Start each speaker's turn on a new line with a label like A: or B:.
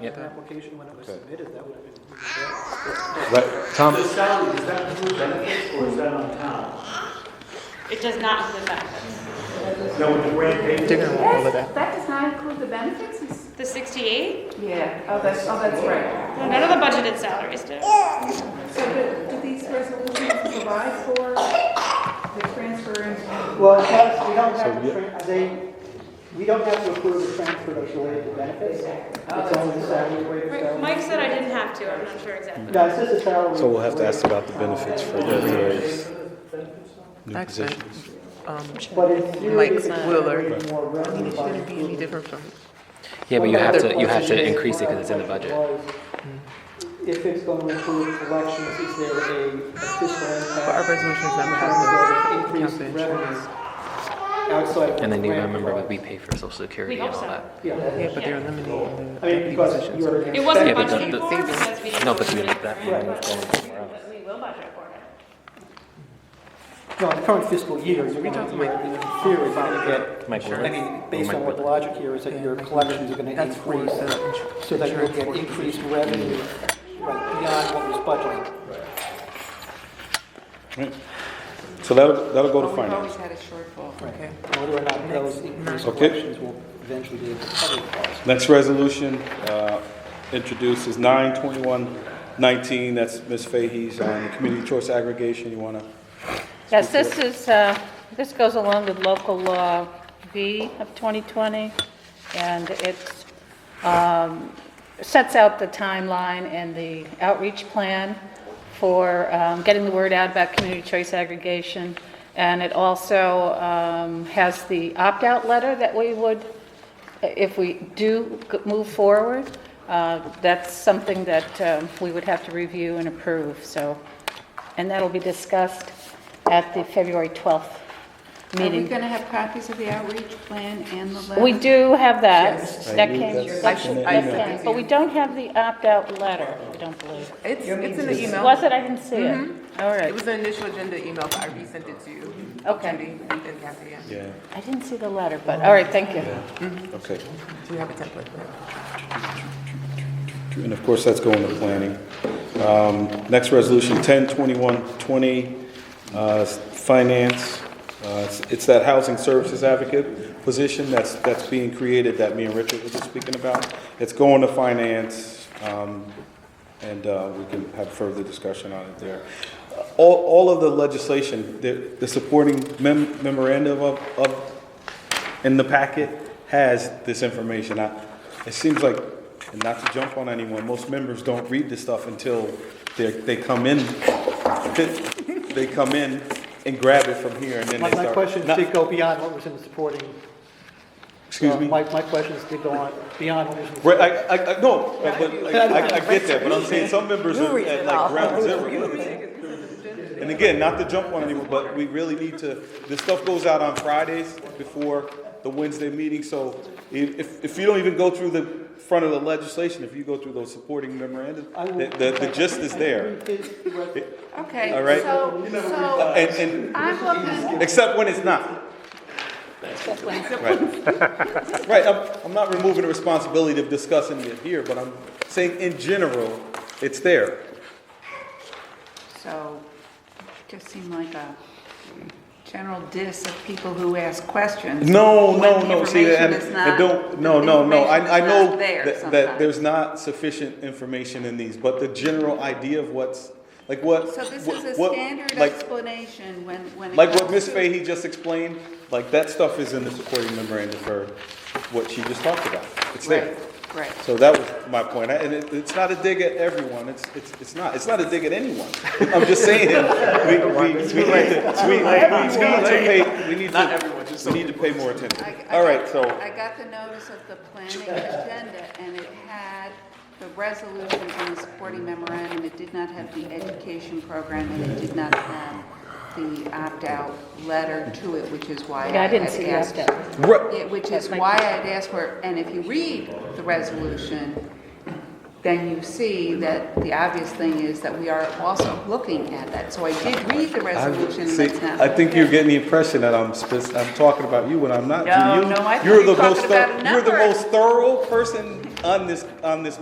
A: Yep.
B: an application when it was
C: Okay.
B: submitted, that would have been.
C: Right, Tom,
D: The salary, is that through benefits or is that on town?
E: It does not include benefits.
D: That would grant pay?
A: They're gonna want all of that.
F: Yes, that does not include the benefits? It's-
E: The 68?
F: Yeah, oh, that's, oh, that's right.
E: No, None of the budgeted salaries do.
F: So do, do these resolutions provide for the transfer and?
B: Well, it has- we don't
C: So
B: have,
C: we-
B: to tran- they, we don't have to approve the transfer that's related to benefits. It's only the salary waiver
E: Right,
B: salary.
E: Mike said I didn't have to, I'm not sure exactly.
B: No, it's just a salary.
C: so we'll have to ask about the benefits for the new
A: Actually,
C: positions.
A: um,
B: But in theory,
A: Mike's
B: it's
A: not-
B: generating more revenue by
A: any
B: improving
A: different from,
G: Yeah, but you
B: Well,
G: have to,
B: my
G: you have
B: question
G: to
B: is-
G: increase it because it's in the budget.
B: If it's going to include elections, is there a fiscal impact?
A: but our resolutions never
B: in
A: have the
B: terms of
A: council
B: increased
A: insurance.
B: revenues outside of.
G: And then you
B: the grant
G: remember what we pay
B: program?
G: for social security
E: We
G: and
E: hope
G: all
E: so.
G: that.
B: Yeah,
A: Yeah, but they're eliminating
B: I mean,
A: the
B: because
A: positions.
B: you're.
E: It wasn't
G: Yeah, but the-
E: budgeted
G: the-
E: for because we didn't.
G: No, but you
E: include it
G: have that
E: in the
G: money
E: grant,
G: going
E: but-
G: somewhere else.
E: but We will budget for it.
B: No, the current fiscal year, you're going to,
A: talking
B: in theory, you're going to get.
G: Mike Woodland.
B: I mean, based on what the
G: Woodland.
B: logic here is that your collections are going to
A: That's for
B: increase,
A: the
B: so that you'll get increased revenue right, beyond what was budgeted.
C: Right. So that'll, that'll go to
H: We've
C: finance.
H: always had a shortfall.
A: Okay.
B: Whether or not those increased
C: Okay.
B: collections will eventually be able to cover the cost.
C: Next resolution uh, introduced is 92119. That's Ms. Fahey's on community choice aggregation. You want to?
I: Yes, this is, uh, this goes along with local law B of 2020, and it sets out the timeline and the outreach plan for um, getting the word out about community choice aggregation. And it also um, has the opt-out letter that we would, if we do g- move forward, uh, that's something that um, we would have to review and approve, so. And that'll be discussed at the February 12th
H: Are we
I: meeting.
H: going to have copies of the outreach plan and the letter?
I: We do have that. That
C: I knew
I: came,
C: that's-
I: that
C: I- I-
I: came, but we don't have the opt-out letter, I don't believe.
H: It's, it's in the email. Mm-hmm.
I: Was it? I didn't see it. All
H: It
I: right.
H: was an initial agenda email, but I resent it to you.
I: Okay.
H: Cindy And Kathy, yeah.
C: Yeah,
I: I didn't see the letter, but, all right, thank you.
C: okay.
H: Do you have a template for that?
C: And of course, that's going to planning. Um, Next resolution, 102120, uh, finance. Uh, it's- It's that housing services advocate position that's, that's being created that me and Richard were just speaking about. It's going to finance, um, and uh, we can have further discussion on it there. All, all of the legislation, the, the supporting mem- memorandum of, of in the packet has this information. I, it seems like, and not to jump on anyone, most members don't read this stuff until they, they come in. They come in and grab it from here and then
B: My
C: they
B: my
C: start.
B: questions
C: Not-
B: did go beyond what was in the supporting.
C: Excuse me?
B: My, my questions did go on beyond what was in the.
C: Right, I, I, I, no, but but I, I- I get that, but I'm saying some members are at like ground zero. And again, not to jump on anyone, but we really need to, this stuff goes out on Fridays before the Wednesday meeting, so if, if- if you don't even go through the front of the legislation, if you go through those supporting memorandum,
B: I will-
C: the, the- the gist is there.
H: Okay.
C: All right.
H: So, so
C: And, and,
H: I'm looking,
C: except when it's not. Right, Right, I'm, I'm not removing the responsibility of discussing it here, but I'm saying in general, it's there.
H: so just seemed like a general diss of people who ask questions.
C: No,
H: when
C: no,
H: the
C: no, see,
H: information
C: and,
H: is
C: and
H: not-
C: don't, no,
H: the
C: no, no, I, I
H: information is
C: know
H: not there
C: that, that
H: sometimes.
C: there's not sufficient information in these, but the general idea of what's, like what.
H: So this
C: what-
H: is a
C: what-
H: standard
C: like-
H: explanation when, when. it
C: Like what
H: comes
C: Ms.
H: to-
C: Fahey just explained, like that stuff is in the supporting memorandum for what she just talked about, it's there.
H: Right, right.
C: So that was my point, I- and it, it's not a dig at everyone, it's, it's, it's not, it's not a dig at anyone. I'm just saying, we, we, we need to, we, we- we need to pay, we need to, we need to pay more attention.
H: I- I
C: All right,
H: got-
C: so.
H: I got the notice of the planning agenda, and it had the resolution and the supporting memorandum. It did not have the education program, and it did not have the opt-out letter to it, which is why I
I: Yeah, I
H: had
I: didn't see the
H: asked.
I: opt-out.
C: Right.
H: Yeah, Which is why I'd asked for, it. and if you read the resolution, then you see that the obvious thing is that we are also looking at that. So I did read the resolution, and
C: See,
H: that's not.
C: I think you're getting the impression that I'm, spec- I'm talking about you when I'm not.
H: No,
C: You-
H: no, I think
C: You're
H: you're
C: the most,
H: talking
C: thor-
H: about a
C: you're the
H: number.
C: most thorough person on this, on this